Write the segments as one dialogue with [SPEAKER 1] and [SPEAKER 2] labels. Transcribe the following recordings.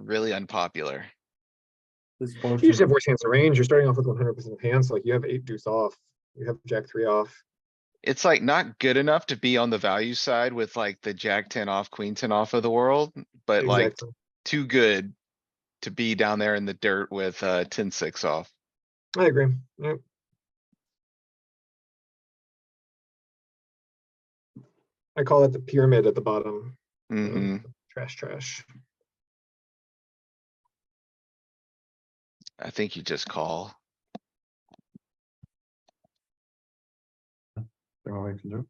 [SPEAKER 1] really unpopular.
[SPEAKER 2] This
[SPEAKER 3] You just
[SPEAKER 2] portion,
[SPEAKER 3] have worse hands in range. You're starting off with one hundred percent of hands, like you have eight deuce off, you have jack three off.
[SPEAKER 1] It's like not good enough to be on the value side with like the jack ten off, queen ten off of the world, but like
[SPEAKER 3] Exactly.
[SPEAKER 1] too good. To be down there in the dirt with uh ten six off.
[SPEAKER 3] I agree. Yep. I call it the pyramid at the bottom.
[SPEAKER 1] hmm
[SPEAKER 2] Mm-hmm.
[SPEAKER 3] Trash, trash.
[SPEAKER 1] I think you just call.
[SPEAKER 2] that's all I can do.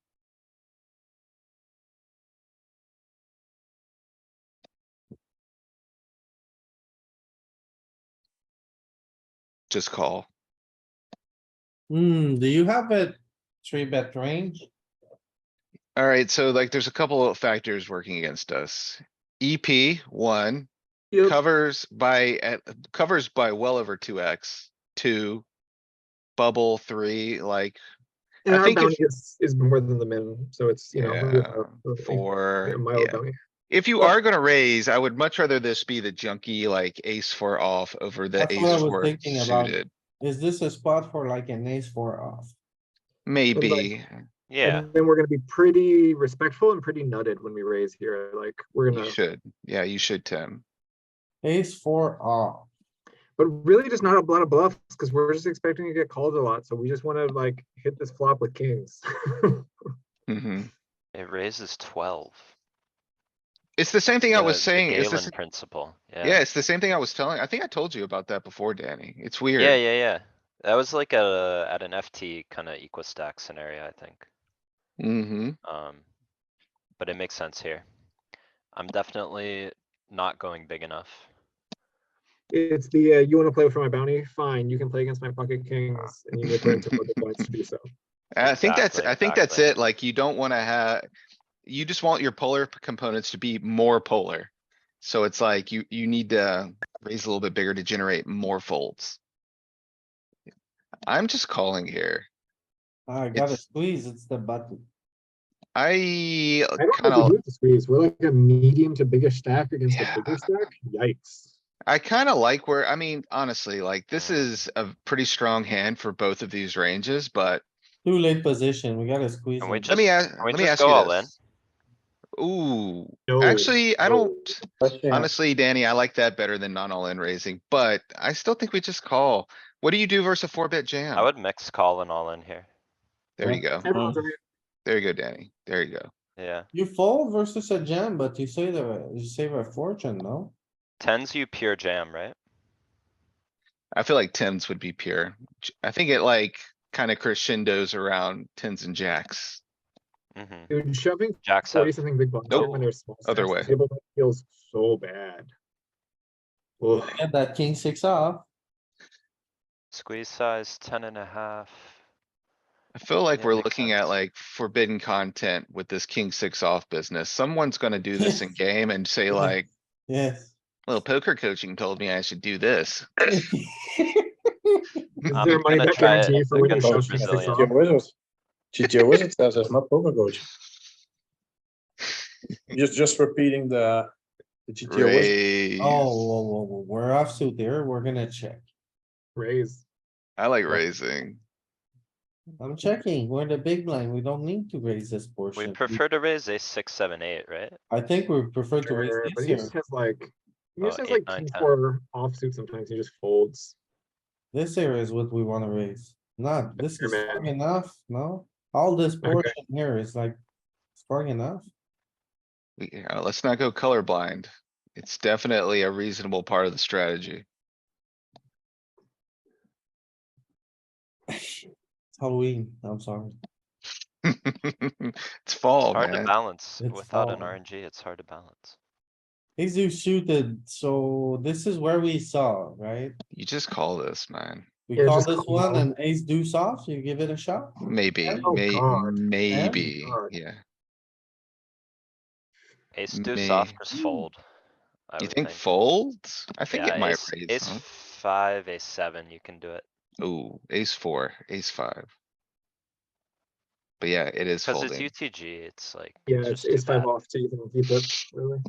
[SPEAKER 1] Just call.
[SPEAKER 2] Hmm, do you have a three bet range?
[SPEAKER 1] Alright, so like there's a couple of factors working against us. EP one covers by at covers by well over two X, two. Bubble three, like,
[SPEAKER 3] And
[SPEAKER 1] I
[SPEAKER 3] our
[SPEAKER 1] think if-
[SPEAKER 3] bounty is, is more than the min, so it's, you know. we have a-
[SPEAKER 1] yeah,
[SPEAKER 3] a- a-
[SPEAKER 1] four.
[SPEAKER 3] A mild
[SPEAKER 1] yeah.
[SPEAKER 3] bounty.
[SPEAKER 1] If you are gonna raise, I would much rather this be the junky like ace four off over the
[SPEAKER 2] That's what I
[SPEAKER 1] ace
[SPEAKER 2] was
[SPEAKER 1] four
[SPEAKER 2] thinking about.
[SPEAKER 1] suited.
[SPEAKER 2] Is this a spot for like an ace four off?
[SPEAKER 1] Maybe,
[SPEAKER 4] Yeah,
[SPEAKER 3] And then we're gonna be pretty respectful and pretty nutted when we raise here, like, we're
[SPEAKER 1] you
[SPEAKER 3] gonna,
[SPEAKER 1] should. Yeah, you should, Tim.
[SPEAKER 2] Ace four off.
[SPEAKER 3] but really just not a lot of bluffs, because we're just expecting to get called a lot, so we just wanna like hit this flop with kings.
[SPEAKER 1] hmm
[SPEAKER 4] it raises twelve.
[SPEAKER 1] It's the same thing I
[SPEAKER 4] The-
[SPEAKER 1] was
[SPEAKER 4] the
[SPEAKER 1] saying. It's the
[SPEAKER 4] Galen
[SPEAKER 1] s-
[SPEAKER 4] Principle, yeah.
[SPEAKER 1] Yeah, it's the same thing I was telling. I think I told you about that before, Danny. It's weird.
[SPEAKER 4] Yeah, yeah, yeah. That was like a, at an FT kinda equal stack scenario, I think.
[SPEAKER 1] Mm-hmm.
[SPEAKER 4] Um, but it makes sense here. I'm definitely not going big enough.
[SPEAKER 3] It's the, uh, you wanna play for my bounty? Fine, you can play against my pocket kings, and you need to put the points to do so.
[SPEAKER 1] I think that's,
[SPEAKER 4] Exactly,
[SPEAKER 1] I think that's
[SPEAKER 4] exactly.
[SPEAKER 1] it. Like, you don't wanna have, you just want your polar p- components to be more polar. So it's like you, you need to raise a little bit bigger to generate more folds. I'm just calling here.
[SPEAKER 2] Ah, I gotta
[SPEAKER 1] It's-
[SPEAKER 2] squeeze, it's the button.
[SPEAKER 1] I
[SPEAKER 3] I don't think we
[SPEAKER 1] kinda,
[SPEAKER 3] do have to squeeze. We're like a medium to biggish stack against a
[SPEAKER 1] Yeah.
[SPEAKER 3] bigger stack. Yikes.
[SPEAKER 1] I kinda like where, I mean, honestly, like,
[SPEAKER 4] Mm.
[SPEAKER 1] this is a pretty strong hand for both of these ranges, but
[SPEAKER 2] Too late position, we gotta squeeze.
[SPEAKER 4] And we
[SPEAKER 2] it.
[SPEAKER 1] let me
[SPEAKER 4] Just-
[SPEAKER 1] ask,
[SPEAKER 4] can we
[SPEAKER 1] let me
[SPEAKER 4] just
[SPEAKER 1] ask
[SPEAKER 4] go
[SPEAKER 1] you
[SPEAKER 4] all in?
[SPEAKER 1] this. Ooh,
[SPEAKER 3] No.
[SPEAKER 1] actually, I
[SPEAKER 3] no.
[SPEAKER 1] don't.
[SPEAKER 2] Question.
[SPEAKER 1] Honestly, Danny, I like that better than non all in raising, but I still think we just call. What do you do versus a four bet jam?
[SPEAKER 4] I would mix call and all in here,
[SPEAKER 1] There you go.
[SPEAKER 3] Everyone's
[SPEAKER 2] Um,
[SPEAKER 3] right.
[SPEAKER 1] There you go, Danny. There you go.
[SPEAKER 4] yeah.
[SPEAKER 2] You fold versus a jam, but you save a, you save a fortune, no?
[SPEAKER 4] Tens you pure jam, right?
[SPEAKER 1] I feel like tens would be pure. J- I think it like kinda crescendos around tens and jacks.
[SPEAKER 4] Mm-hmm.
[SPEAKER 3] Dude, shoving
[SPEAKER 4] Jacks up,
[SPEAKER 3] forty something big blinds
[SPEAKER 1] Nope.
[SPEAKER 3] when there's small
[SPEAKER 1] Other
[SPEAKER 3] stacks
[SPEAKER 1] way.
[SPEAKER 3] on the table that feels so bad. Ugh.
[SPEAKER 2] Get that king six off,
[SPEAKER 4] squeeze size ten and a half.
[SPEAKER 1] I feel like
[SPEAKER 4] Yeah,
[SPEAKER 1] we're
[SPEAKER 4] makes
[SPEAKER 1] looking at
[SPEAKER 4] sense.
[SPEAKER 1] like forbidden content with this king six off business. Someone's gonna do this in game and say
[SPEAKER 4] Mm-hmm.
[SPEAKER 2] Yeah.
[SPEAKER 1] like,
[SPEAKER 2] yes.
[SPEAKER 1] well, poker coaching told me I should do this.
[SPEAKER 3] Is
[SPEAKER 4] I'm
[SPEAKER 3] there a money
[SPEAKER 4] gonna
[SPEAKER 3] back
[SPEAKER 4] try it
[SPEAKER 3] guarantee for when you
[SPEAKER 4] against
[SPEAKER 3] shove things
[SPEAKER 4] Brazilian.
[SPEAKER 3] off?
[SPEAKER 5] Wizards. GTO Wizards says it's not poker coach. Just, just repeating the, the GTO Wizards.
[SPEAKER 1] Raise.
[SPEAKER 2] Oh, whoa, whoa, whoa, we're offsuit there, we're gonna check.
[SPEAKER 3] Raise.
[SPEAKER 1] I like raising.
[SPEAKER 2] I'm checking, we're the big blind, we don't need to raise this
[SPEAKER 4] We
[SPEAKER 2] portion.
[SPEAKER 4] prefer to raise a six, seven, eight, right?
[SPEAKER 2] I think we prefer to raise
[SPEAKER 3] Sure, But
[SPEAKER 2] this
[SPEAKER 3] he
[SPEAKER 2] here.
[SPEAKER 3] just has like, he
[SPEAKER 4] Oh,
[SPEAKER 3] just has
[SPEAKER 4] eight,
[SPEAKER 3] like
[SPEAKER 4] nine,
[SPEAKER 3] king
[SPEAKER 4] ten.
[SPEAKER 3] four offsuit sometimes. He just folds.
[SPEAKER 2] This here is what we wanna raise, not, this is
[SPEAKER 3] Here,
[SPEAKER 2] strong
[SPEAKER 3] man.
[SPEAKER 2] enough, no? All this
[SPEAKER 3] Okay.
[SPEAKER 2] portion here is like strong enough.
[SPEAKER 1] We, yeah, let's not go colorblind. It's definitely a reasonable part of the strategy.
[SPEAKER 2] It's Halloween, I'm sorry.
[SPEAKER 1] It's fall,
[SPEAKER 4] It's hard to
[SPEAKER 1] Oh, man.
[SPEAKER 4] balance.
[SPEAKER 2] It's
[SPEAKER 4] Without an
[SPEAKER 2] fall.
[SPEAKER 4] RNG, it's hard to balance.
[SPEAKER 2] Ace deuce suited, so this is where we saw, right?
[SPEAKER 1] You just call this, man.
[SPEAKER 2] We
[SPEAKER 3] Yeah,
[SPEAKER 2] call
[SPEAKER 3] just
[SPEAKER 2] this
[SPEAKER 3] call.
[SPEAKER 2] one an ace deuce off, you give it a shot?
[SPEAKER 1] Maybe,
[SPEAKER 3] Oh,
[SPEAKER 1] may,
[SPEAKER 3] God.
[SPEAKER 1] maybe,
[SPEAKER 3] God.
[SPEAKER 1] yeah.
[SPEAKER 4] Ace deuce off
[SPEAKER 1] May-
[SPEAKER 4] just fold. I
[SPEAKER 1] You
[SPEAKER 4] would
[SPEAKER 1] think folds? I think
[SPEAKER 4] Yeah,
[SPEAKER 1] it might
[SPEAKER 4] ace-
[SPEAKER 1] raise.
[SPEAKER 4] Ace
[SPEAKER 1] huh?
[SPEAKER 4] five, ace seven, you can do it.
[SPEAKER 1] Ooh, ace four, ace five. But yeah, it is
[SPEAKER 4] Cause it's
[SPEAKER 1] folding.
[SPEAKER 4] UTG, it's like.
[SPEAKER 3] Yeah,
[SPEAKER 4] just
[SPEAKER 3] it's,
[SPEAKER 4] too
[SPEAKER 3] it's five
[SPEAKER 4] bad.
[SPEAKER 3] off to even keep it, really.